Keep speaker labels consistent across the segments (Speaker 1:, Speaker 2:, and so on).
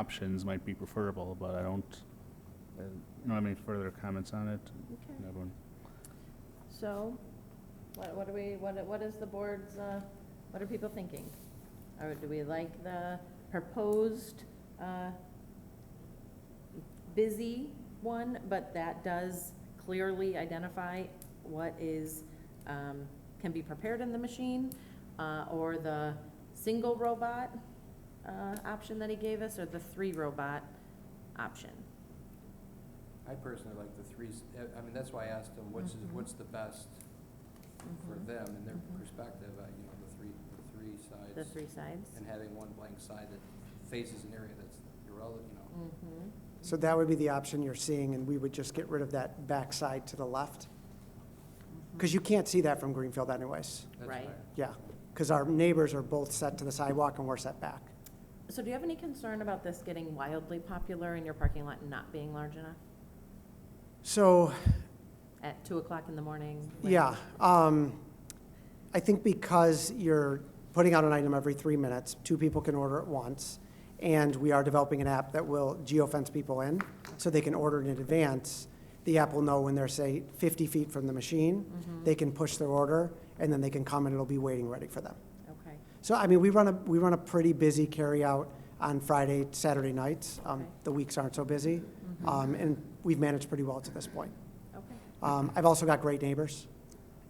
Speaker 1: options might be preferable, but I don't, I don't have any further comments on it.
Speaker 2: Okay.
Speaker 1: Everyone-
Speaker 2: So, what, what do we, what, what is the board's, uh, what are people thinking? Or do we like the proposed, uh, busy one, but that does clearly identify what is, um, can be prepared in the machine? Uh, or the single robot, uh, option that he gave us, or the three robot option?
Speaker 3: I personally like the threes, I I mean, that's why I asked them, what's,
Speaker 2: Mhm.
Speaker 3: what's the best for
Speaker 2: Mhm.
Speaker 3: them and their
Speaker 2: Mhm.
Speaker 3: perspective, uh, you know, the three, the three sides.
Speaker 2: The three sides?
Speaker 3: And having one blank side that faces an area that's irrelevant, you know.
Speaker 2: Mm-hmm.
Speaker 4: So that would be the option you're seeing, and we would just get rid of that backside to the left? Because you can't see that from Greenfield anyways,
Speaker 3: That's
Speaker 2: Right.
Speaker 3: fine.
Speaker 4: yeah. Because our neighbors are both set to the sidewalk and we're set back.
Speaker 2: So do you have any concern about this getting wildly popular and your parking lot not being large enough
Speaker 4: So,
Speaker 2: at two o'clock in the morning? like-
Speaker 4: yeah, um, I think because you're putting out an item every three minutes, two people can order at once, and we are developing an app that will geofence people in, so they can order in advance. The app will know when they're, say, 50 feet from the machine, they can push their order, and then they can come and it'll be waiting ready for them.
Speaker 2: Okay,
Speaker 4: So, I mean, we run a, we run a pretty busy carryout on Friday, Saturday nights. Um,
Speaker 2: Okay.
Speaker 4: The weeks aren't so busy, um, and we've managed pretty well to this point.
Speaker 2: okay,
Speaker 4: Um, I've also got great neighbors,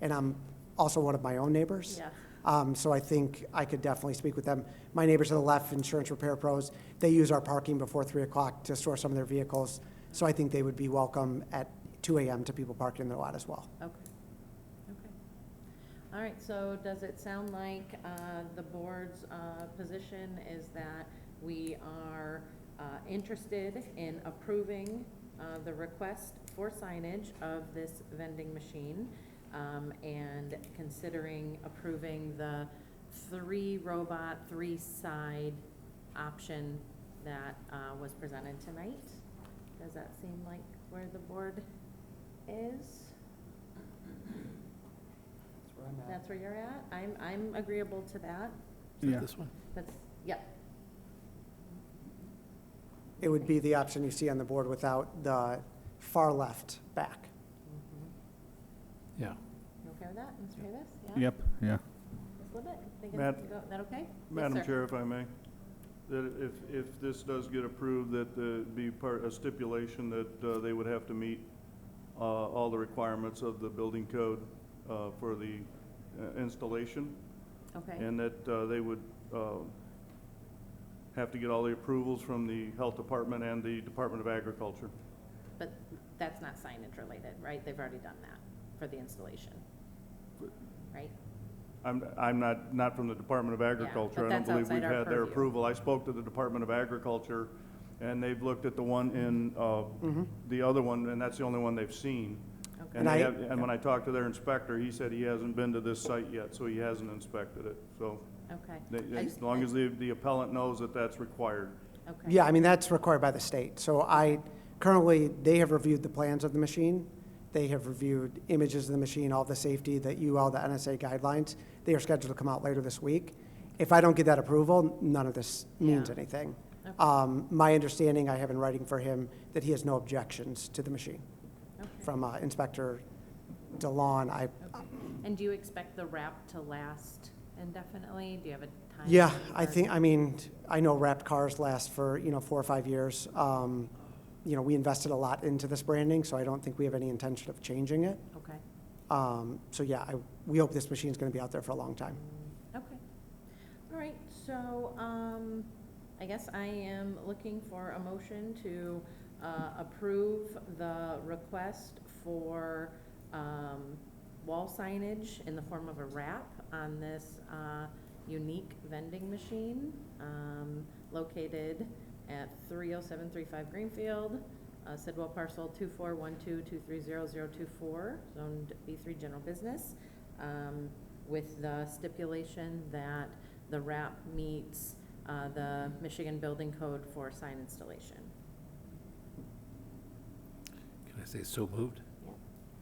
Speaker 4: and I'm also one of my own neighbors.
Speaker 2: yeah,
Speaker 4: Um, So I think I could definitely speak with them. My neighbors to the left, insurance repair pros, they use our parking before 3 o'clock to store some of their vehicles, so I think they would be welcome at 2 AM to people parking in their lot as well.
Speaker 2: okay, okay. All right, so does it sound like uh, the board's uh, position is that we are uh, interested in approving uh, the request for signage of this vending machine um, and considering approving the three robot, three side option that uh, was presented tonight? Does that seem like where the board is?
Speaker 3: That's where I'm at.
Speaker 2: That's where you're at? I'm, I'm agreeable to that.
Speaker 1: Yeah,
Speaker 2: That's, yep,
Speaker 4: It would be the option you see on the board without the far left back.
Speaker 5: Yeah.
Speaker 2: you okay with that, Mr. Davis?
Speaker 1: yep, yeah.
Speaker 2: Ms. Libet, think it's,
Speaker 6: Mad-
Speaker 2: go- that okay? Yes,
Speaker 6: Madam
Speaker 2: sir.
Speaker 6: Chair, if I may, that if, if this does get approved, that uh, be part, a stipulation that uh, they would have to meet uh, all the requirements of the building code uh, for the uh, installation,
Speaker 2: Okay,
Speaker 6: and that uh, they would uh, have to get all the approvals from the Health Department and the Department of Agriculture.
Speaker 2: but that's not signage related, right? They've already done that for the installation, right?
Speaker 6: I'm, I'm not, not from the Department of
Speaker 2: but
Speaker 6: Agriculture. I don't
Speaker 2: that's
Speaker 6: believe we've
Speaker 2: outside our
Speaker 6: had their
Speaker 2: purview.
Speaker 6: approval. I spoke to the Department of Agriculture, and they've looked at the one in, uh, the other one, and that's the only one they've seen.
Speaker 2: Okay.
Speaker 6: And
Speaker 4: And I-
Speaker 6: they have, and when I talked to their inspector, he said he hasn't been to this site yet, so he hasn't inspected it. So,
Speaker 2: Okay.
Speaker 6: they-
Speaker 2: I
Speaker 6: as
Speaker 2: just-
Speaker 6: long as the, the appellant knows that that's required.
Speaker 2: Okay.
Speaker 4: Yeah, I mean, that's required by the state. So I, currently, they have reviewed the plans of the machine. They have reviewed images of the machine, all the safety, the UL, the NSA guidelines. They are scheduled to come out later this week. If I don't get that approval, none of this means
Speaker 2: Yeah.
Speaker 4: anything.
Speaker 2: Okay.
Speaker 4: Um, My understanding, I have in writing for him, that he has no objections to the machine.
Speaker 2: Okay.
Speaker 4: From uh, Inspector DeLon, I,
Speaker 2: Okay. And do you expect the wrap to last indefinitely? Do you have a time?
Speaker 4: Yeah, I
Speaker 2: or-
Speaker 4: think, I mean, I know wrapped cars last for, you know, four or five years. Um, You know, we invested a lot into this branding, so I don't think we have any intention of changing it.
Speaker 2: Okay.
Speaker 4: Um, So yeah, I, we hope this machine's gonna be out there for a long time.
Speaker 2: Okay. All right, so, um, I guess I am looking for a motion to, uh, approve the request for, um, wall signage in the form of a wrap on this, uh, unique vending machine, um, located at three oh seven three five Greenfield, uh, Sidwell parcel two four one two two three zero zero two four, zoned B three general business. Um, with the stipulation that the wrap meets uh, the Michigan Building Code for sign installation.
Speaker 5: Can I say so moved?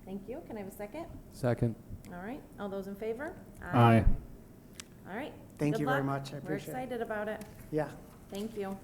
Speaker 2: Thank you. Can I have a second?
Speaker 3: Second.
Speaker 2: All right. All those in favor?
Speaker 1: Aye.
Speaker 2: All right.
Speaker 4: Thank
Speaker 2: Good
Speaker 4: you very
Speaker 2: luck.
Speaker 4: much, I
Speaker 2: We're
Speaker 4: appreciate it.
Speaker 2: excited about it.
Speaker 4: Yeah,
Speaker 2: Thank you.